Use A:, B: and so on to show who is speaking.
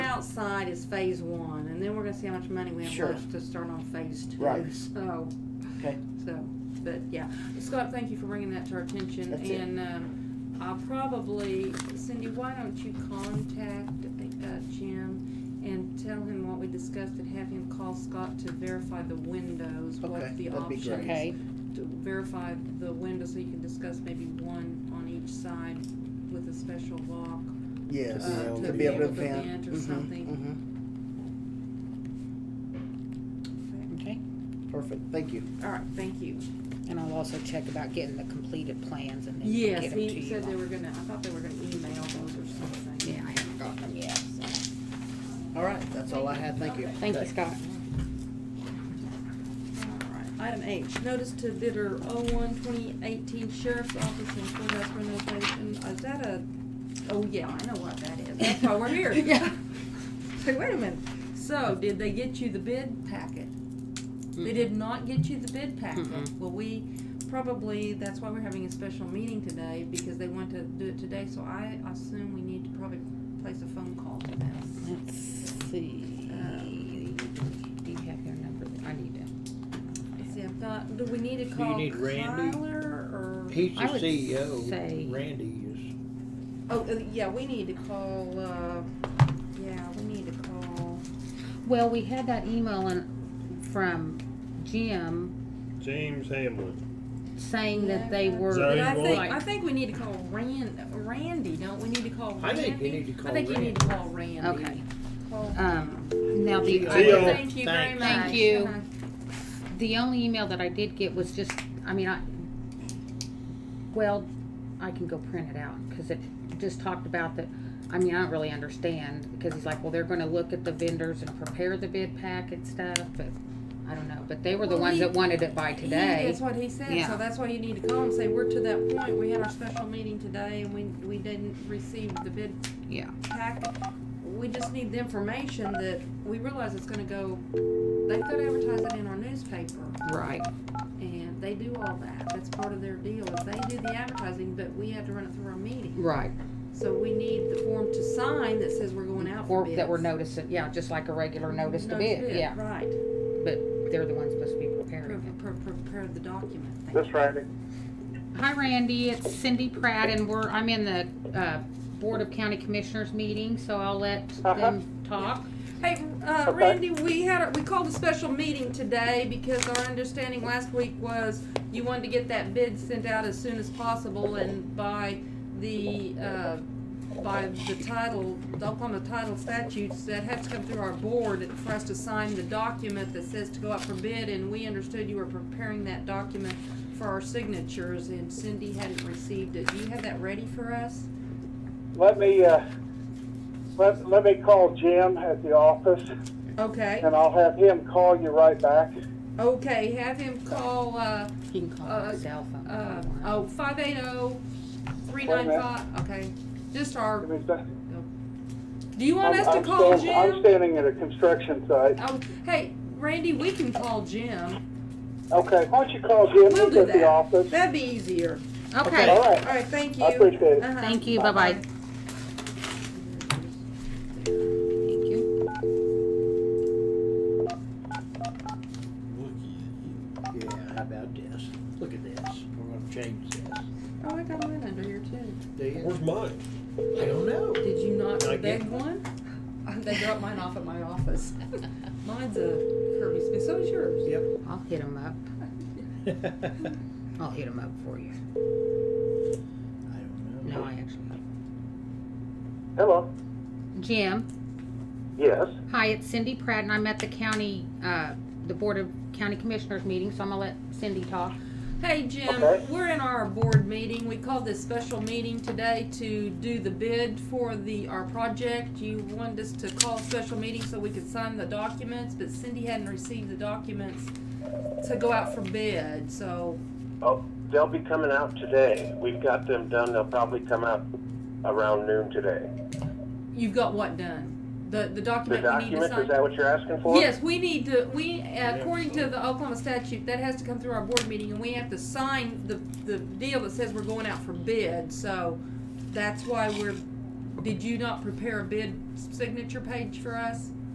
A: side is phase one, and then we're gonna see how much money we have
B: Sure.
A: left to start on phase two.
B: Right.
A: So,
B: Okay,
A: so, but yeah, Scott, thank you for bringing that to our attention,
B: That's it.
A: and, um, I'll probably, Cindy, why don't you contact, uh, Jim and tell him what we discussed and have him call Scott to verify the windows,
B: Okay,
A: what the
B: that'd be
A: options.
B: great.
C: Okay,
A: To verify the windows, so you can discuss maybe one on each side with a special lock.
B: yes,
A: Uh,
B: to be able to
A: vent
B: vent.
A: or
B: Mhm,
D: Mm-hmm,
A: something.
D: mm-hmm.
C: okay.
B: mhm. Perfect, thank you.
A: All right, thank you.
C: And I'll also check about getting the completed plans and then get
A: Yes,
C: them to you.
A: he said they were gonna, I thought they were gonna email those or something.
C: Yeah, I haven't got them yet, so.
B: All right, that's all I had, thank you.
A: Okay.
C: Thank you,
B: Okay.
C: Scott.
A: All right. Item H, notice to bidder 01-2018 Sheriff's Office and Courthouse renovation. Is that a, oh yeah, I know what that is. That's why we're here.
C: Yeah.
A: Say, wait a minute. So, did they get you the bid packet? They did not get you the bid packet.
C: Mm-mm.
A: Well, we probably, that's why we're having a special meeting today, because they want to do it today, so I assume we need to probably place a phone call to them.
C: Let's see. Do you have their number? I need
A: Let's see,
C: to.
A: I've got, do we need to
D: you
A: call
D: need Randy?
A: Kyler or?
D: He's the
C: I would say-
D: CEO, Randy is,
A: Oh, uh, yeah, we need to call, uh, yeah, we need to call,
C: Well, we had that email in, from Jim
E: James Hamlin.
C: saying that they were.
E: Zone
A: but I think,
C: like-
A: I think we need to call Ran, Randy, don't we need to call Randy?
D: I think we need to
A: I
D: call
A: think you
D: Randy.
A: need to call Randy.
C: Okay,
A: Call-
C: um, now the.
D: Deal.
E: Deal.
A: Thank you very much.
E: Thanks.
C: Thank you.
A: Uh-huh.
C: The only email that I did get was just, I mean, I, well, I can go print it out, cause it just talked about that, I mean, I don't really understand, because he's like, well, they're gonna look at the vendors and prepare the bid pack and stuff, but, I don't know, but they were the
A: Well,
C: ones
A: he-
C: that wanted it by
A: Yeah,
C: today.
A: That's what he said, so
C: Yeah.
A: that's why you need to call and say, we're to that point, we had our special meeting today and we, we didn't receive the bid
C: Yeah,
A: packet. We just need the information that, we realize it's gonna go, they've gotta advertise it in our newspaper.
C: right,
A: And they do all that. That's part of their deal. If they do the advertising, but we have to run it through our meeting.
C: right,
A: So we need the form to sign that says we're going out for
C: or
A: bids.
C: that were noticing, yeah, just like a regular notice to
A: Notice
C: bid, yeah,
A: Right.
C: but they're the ones supposed to be
A: Pre-
C: preparing
A: pre- pre- Prepare the document. Thank
E: That's
A: you.
E: Randy.
C: it. Hi Randy, it's Cindy Pratt, and we're, I'm in the, uh, Board of County Commissioners meeting, so I'll let them talk.
A: Hey, uh, Randy, we had, a- we called a special meeting today because our understanding last week was you wanted to get that bid sent out as soon as possible and by the, uh, by the title, the Oklahoma title statutes, that had to come through our board for us to sign the document that says to go out for bid, and we understood you were preparing that document for our signatures, and Cindy hadn't received it. Do you have that ready for us?
F: Let me, uh, let, let me call Jim at the office
A: Okay,
F: and I'll have him call you right back.
A: okay, have him call, uh,
C: He can call
A: Uh,
C: my cell phone.
A: Uh,
C: if you want.
A: oh, five eight oh, three
F: Wait a
A: nine
F: minute.
A: five, okay, just
F: I
A: our,
F: mean, that-
A: do you want
F: I'm-
A: us to
F: I'm
A: call
F: stand- I'm
A: Jim?
F: standing at a construction site.
A: Oh, hey, Randy, we can call Jim,
F: Okay, why don't you call Jim?
A: we'll
F: He's
A: do
F: at the
A: that,
F: office.
A: that'd be easier,
C: oh, Okay,
F: All
A: all
F: right,
A: right, thank you.
F: I appreciate it.
A: Uh-huh.
C: thank you, bye-bye. Thank you.
D: yeah, how about this? Look at this, we're gonna change this.
A: Oh, I got mine under here too,
D: Do you?
E: Where's mine?
D: I don't know.
A: did you not
D: Did I
A: beg
D: get-
A: one? Uh, They dropped mine off at my office, mine's a Kirby Smith, so is yours.
D: Yep.
C: I'll hit him up, I'll hit him up for you.
D: I don't know.
C: No, I actually,
F: Hello?
C: Jim,
F: Yes?
C: hi, it's Cindy Pratt, and I'm at the county, uh, the Board of County Commissioners meeting, so I'm gonna let Cindy talk.
A: Hey, Jim,
F: Okay.
A: we're in our board meeting. We called this special meeting today to do the bid for the, our project. You wanted us to call a special meeting so we could sign the documents, but Cindy hadn't received the documents to go out for bid, so,
G: Oh, they'll be coming out today. We've got them done. They'll probably come out around noon today.
A: you've got what done? The,
G: The
A: the document we need to
G: document,
A: sign?
G: is that what you're asking for?
A: Yes, we need to, we, uh, according to the Oklahoma statute, that has to come through our board meeting, and we have to sign the, the deal that says we're going out for bid, so that's why we're did you not prepare a bid signature page for us?